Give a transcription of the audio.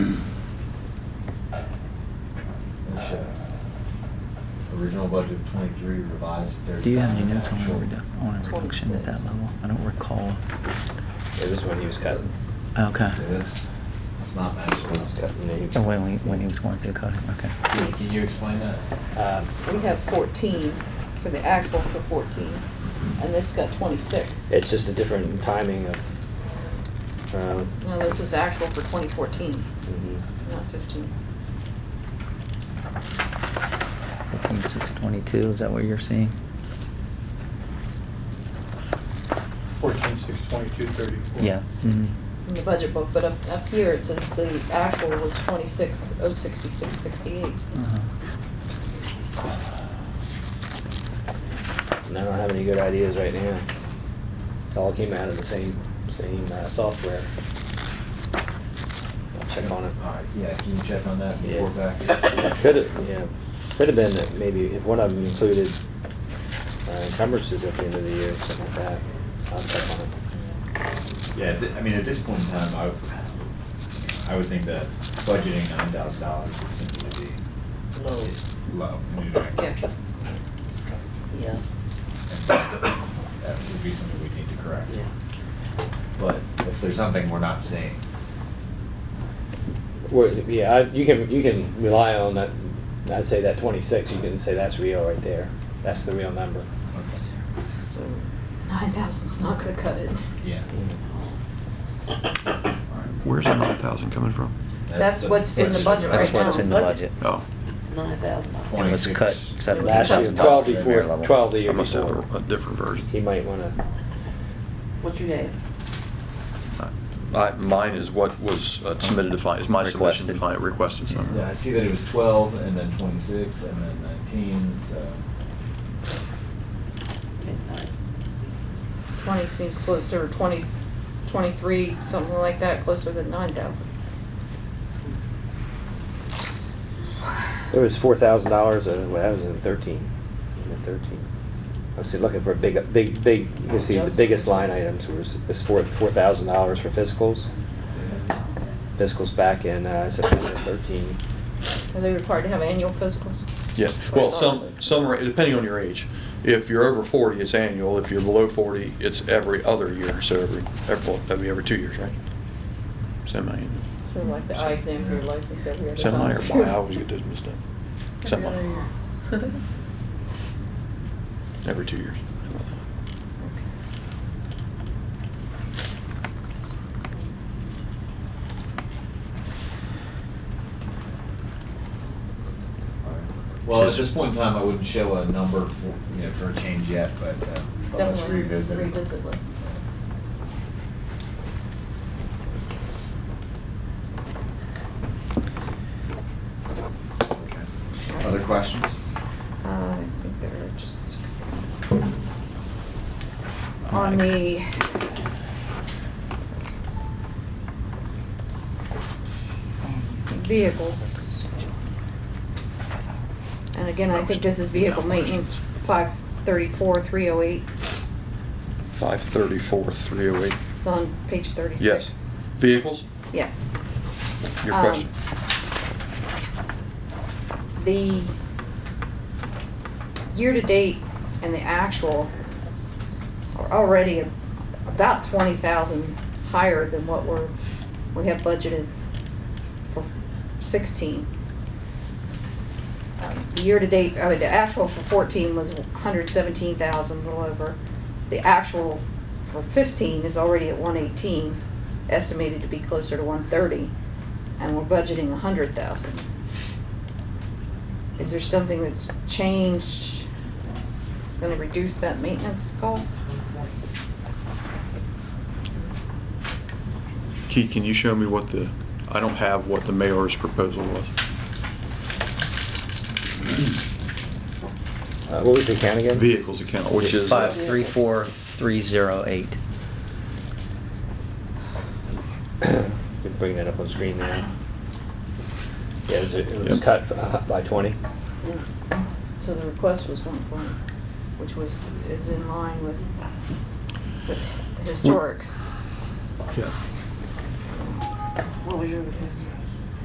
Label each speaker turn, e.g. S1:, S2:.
S1: uh,
S2: original budget of twenty-three, revised to thirty-five.
S3: Do you have any notes on a
S2: actual.
S3: redu- on a reduction at that level? I don't recall.
S4: It was when he was cutting.
S3: Okay.
S2: Yeah, That's, that's not
S4: When he was
S2: matched.
S4: cutting, he was-
S3: Oh, when, we- when he was going through coding, okay.
S2: Keith, Can you explain that?
S4: Um,
S5: We have fourteen for the actual for fourteen, and it's got twenty-six.
S4: It's just a different timing of, um,
S5: No, this is actual for twenty fourteen,
S4: mhm.
S5: not fifteen.
S3: Fifteen six twenty-two, is that what you're seeing?
S6: Fourteen, six, twenty-two, thirty-four.
S3: Yeah. mhm.
S5: In the budget book, but up, up here it says the actual was twenty-six, oh sixty-six, sixty-eight.
S3: Uh-huh.
S4: and I don't have any good ideas right now. It all came out of the same, same uh, software. I'll check on it.
S2: Alright, yeah, can you check on that and
S4: Yeah.
S2: report back?
S4: Could have, yeah, could have been that maybe if one of them included uh, encumbrances at the end of the year, something like that. I'll check on it.
S1: Yeah, at thi- I mean, at this point in time, I, would- I would think that budgeting nine thousand dollars would seem to be
S5: Low.
S1: low. I mean, I-
S5: Yeah. Yeah.
S1: That would be something we need to correct. But if there's something we're not seeing,
S4: Well, yeah, I- you can, you can rely on that, I'd say that twenty-six, you can say that's real right there. That's the real number.
S5: So nine thousand's not gonna cut it.
S1: yeah.
S7: Where's the nine thousand coming from?
S5: That's
S1: the-
S5: what's in the
S1: that's-
S5: budget right
S3: That's what's
S5: now.
S3: in the budget.
S7: Oh,
S5: Nine thousand.
S3: And was cut
S1: 26.
S3: seven
S4: Last
S3: thousand
S4: year,
S3: dollars
S4: twelve
S3: to the mayor
S4: before,
S3: level.
S4: twelve the
S7: I
S4: year
S7: must have a- a
S4: before.
S7: different
S4: He
S7: version.
S4: might wanna,
S5: What you have?
S7: My- Mine is what was uh, submitted to finance, my submission to
S3: Requested.
S7: finance, requested, sorry.
S2: Yeah, I see that it was twelve and then twenty-six and then nineteen, so.
S5: Twenty seems closer, twenty, twenty-three, something like that, closer than nine thousand.
S4: there was four thousand dollars, uh, well, that was in thirteen, in thirteen. I was looking for a big, big, big, you see, the biggest line items was, is four, four thousand dollars for fiscals. Fiscals back in, uh, September thirteen.
S5: Are they required to have annual physicals?
S7: Yeah, well, some, some, ra- depending on your age. If you're over forty, it's annual. If you're below forty, it's every other year, so every, every, well, that'd be every two years, right? Semi-annual.
S5: Sort of like the eye exam for your license every other time.
S7: Semi or bi, I always get those mixed up. Semi, every two years.
S2: Alright. Well, at this point in time, I wouldn't show a number for, you know, for a change yet, but, uh, but let's
S5: Definitely
S2: revisit it.
S5: revisit list.
S2: Okay. Other questions?
S5: Uh, I think they're just.
S3: I'm
S5: On
S3: like-
S5: the. Vehicles. And again, I think this is vehicle maintenance, five thirty-four, three oh eight,
S7: Five thirty-four, three oh eight.
S5: it's on page thirty-six.
S7: Yes. Vehicles?
S5: Yes.
S7: Your
S5: Um,
S7: question?
S5: The year-to-date and the actual are already about twenty thousand higher than what we're, we have budgeted for sixteen. Um, the Year-to-date, I mean, the actual for fourteen was hundred seventeen thousand, a little over. The actual for fifteen is already at one eighteen, estimated to be closer to one thirty, and we're budgeting a hundred thousand. Is there something that's changed that's gonna reduce that maintenance cost?
S7: Keith, can you show me what the, I don't have what the mayor's proposal was.
S4: Uh, what was the count again?
S7: Vehicles account, which is.
S3: Five three four three zero eight.
S4: We can bring that up on screen now. Yeah, it was, it was
S7: Yep.
S4: cut uh, by twenty.
S5: So the request was one point, which was, is in line with the the historic.
S7: Yeah.
S5: What was your request?